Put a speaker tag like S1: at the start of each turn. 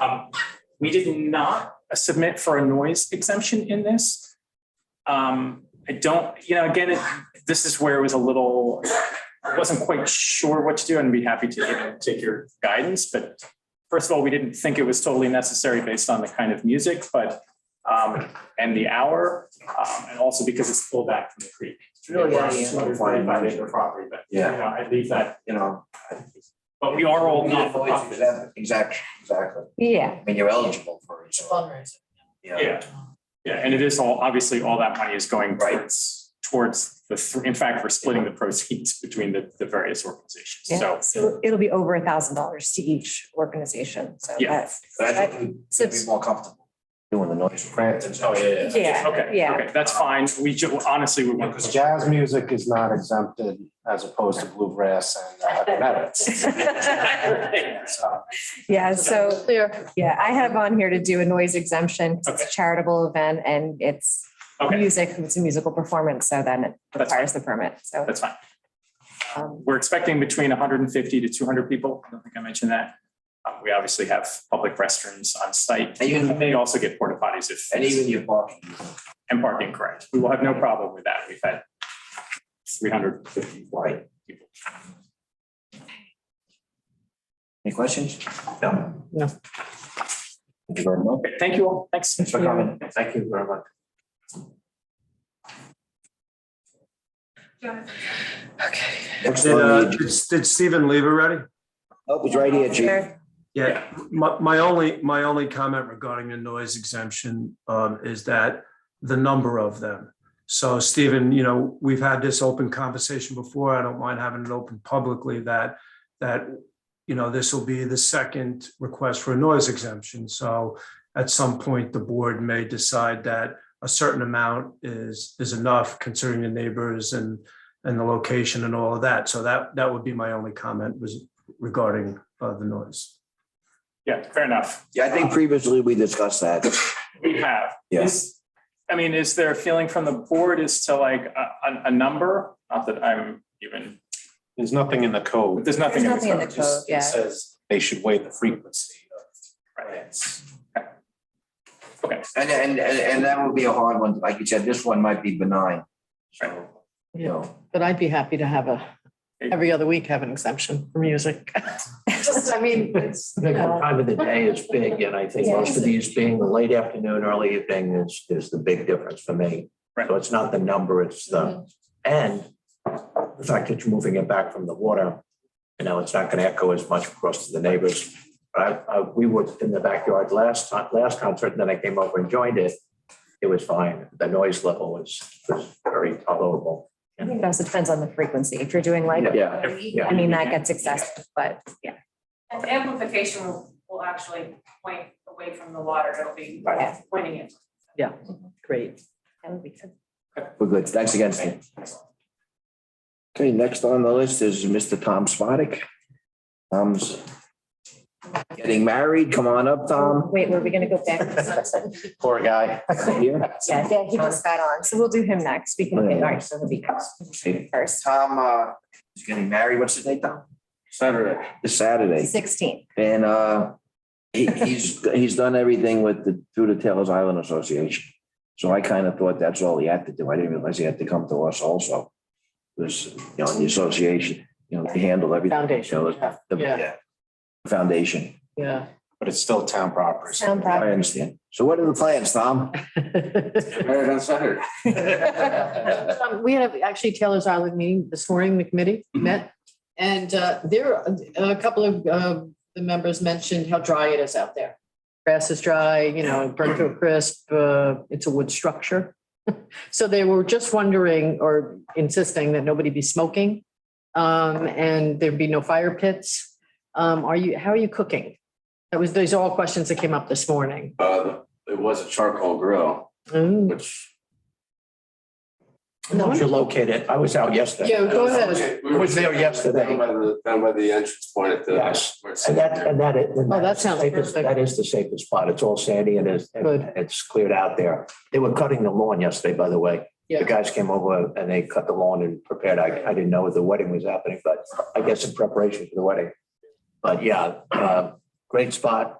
S1: Um, We did not submit for a noise exemption in this. Um, I don't, you know, again, it- this is where it was a little, I wasn't quite sure what to do and be happy to you know, take your guidance, but first of all, we didn't think it was totally necessary based on the kind of music, but um, and the hour, um, and also because it's pulled back from the creek. It's
S2: really out of the-
S1: Two hundred forty-five acre property, but you
S2: Yeah.
S1: know, I leave that,
S2: you know.
S1: but we are all not for profit.
S2: Exactly, exactly.
S3: Yeah,
S2: I mean, you're eligible for it, so,
S4: fundraiser.
S2: yeah.
S1: Yeah, yeah, and it is all, obviously, all that money is going
S2: Right.
S1: towards, towards the, thr- in fact, we're splitting the proceeds between the, the various organizations,
S3: yeah,
S1: so.
S3: so it'll be over a thousand dollars to each organization, so
S1: Yeah.
S3: that's.
S2: But I think we'd be
S3: Since-
S2: more comfortable doing the noise.
S5: Oh,
S2: Francis.
S3: Yeah,
S1: Okay,
S3: yeah.
S1: okay, that's fine, we ju, honestly, we want.
S6: Because jazz music is not exempted as opposed to bluegrass and uh, heavy metal. So,
S3: Yeah, so,
S4: Clear.
S3: yeah, I have on here to do a noise exemption, 'cause
S1: Okay.
S3: it's a charitable event and it's
S1: Okay,
S3: music, it's a musical performance, so then it
S1: That's
S3: requires the permit, so.
S1: that's fine,
S3: um,
S1: we're expecting between hundred and fifty to two hundred people, I don't think I mentioned that. Um, we obviously have public restrooms on site, and
S2: And even,
S1: they also get porta potties if.
S2: and even your parking.
S1: And parking, correct. We will have no problem with that. We've had three hundred fifty white people.
S2: Any questions? No. No. Thank you very much.
S1: Okay, Thank you all. Thanks.
S2: Thanks for coming. Thank you very much. Next
S7: Did, uh,
S2: one,
S7: did did Stephen leave already?
S2: oh, it's right here, Chief.
S7: Yeah, my, my only, my only comment regarding the noise exemption um, is that the number of them. So Stephen, you know, we've had this open conversation before. I don't mind having it open publicly that, that, you know, this will be the second request for a noise exemption. So at some point, the board may decide that a certain amount is, is enough considering the neighbors and, and the location and all of that. So that, that would be my only comment was regarding uh, the noise.
S1: Yeah, fair enough.
S2: Yeah, I think previously we discussed that.
S1: We have.
S2: Yeah.
S1: Is- I mean, is there a feeling from the board as to like a, a, a number? Not that I'm even,
S6: There's nothing in the
S1: but
S6: code.
S1: there's nothing.
S3: There's nothing in the
S1: code.
S3: code,
S6: Just- It
S3: yeah.
S6: says they should weigh the frequency of
S1: Right.
S6: events.
S1: Okay,
S2: And, and, and and that would be a hard one. Like you said, this one might be benign. So, you know.
S4: But I'd be happy to have a, every other week have an exemption for music. Just, I mean, it's.
S8: I think the time of the day is big, and I think most of these being the late afternoon, early evening is, is the big difference for me.
S1: Right.
S8: So it's not the number, it's the, and the fact that you're moving it back from the water, you know, it's not gonna echo as much across to the neighbors. I, I, we were in the backyard last time, last concert, and then I came over and joined it. It was fine. The noise level was, was very tolerable.
S3: I think It also depends on the frequency. If you're doing like,
S8: Yeah.
S3: I mean, that gets excessive, but yeah.
S9: And amplification will, will actually point away from the water, it'll be
S3: Right.
S9: pointing it.
S4: Great.
S3: that would be good.
S2: We're good. Thanks again, Stan. Okay, next on the list is Mr. Tom Spodek. Tom's getting married. Come on up, Tom.
S3: um, Wait, were we gonna go back?
S6: Poor guy.
S2: Here.
S3: Yeah, yeah, he just got on, so we'll do him next. We can, all right, so he'll be first,
S2: Tom uh, is getting married. What's the date, Tom? Saturday. This Saturday.
S3: sixteen.
S2: And uh, he- he's, he's done everything with the, through the Taylor's Island Association. So I kind of thought that's all he had to do. I didn't realize he had to come to us also. This, you know, the association, you know, they handle everything.
S4: Foundation,
S2: You know, the-
S4: yeah,
S2: yeah, Foundation.
S4: Yeah.
S6: But it's still town property. so-
S3: Sound
S2: I
S3: property.
S2: understand. So what are the plans, Tom? Married on Saturday.
S4: Um, We had actually Taylor's Island meeting this morning, the committee met. And uh, there, a couple of uh, the members mentioned how dry it is out there. Grass is dry, you know, burnt to a crisp, uh, it's a wood structure. So they were just wondering or insisting that nobody be smoking. um, And there'd be no fire pits. Um, Are you, how are you cooking? That was, these are all questions that came up this morning.
S5: Uh, it was a charcoal grill,
S4: Mm.
S5: which.
S8: Once you locate it, I was out yesterday.
S4: Yeah, go ahead.
S5: We were
S8: was there yesterday.
S5: Down by the, down by the entrance point at the.
S8: Yes.
S5: where it's
S8: And that,
S5: there.
S8: and that is. and
S4: Oh, that
S8: that's the
S4: sounds
S8: safest-
S4: perfect.
S8: That is the safest spot. It's all sandy and it's, and
S4: Good.
S8: it's cleared out there. They were cutting the lawn yesterday, by the way.
S4: Yeah.
S8: The guys came over and they cut the lawn and prepared. I, I didn't know the wedding was happening, but I guess in preparation for the wedding. But yeah, uh, great spot.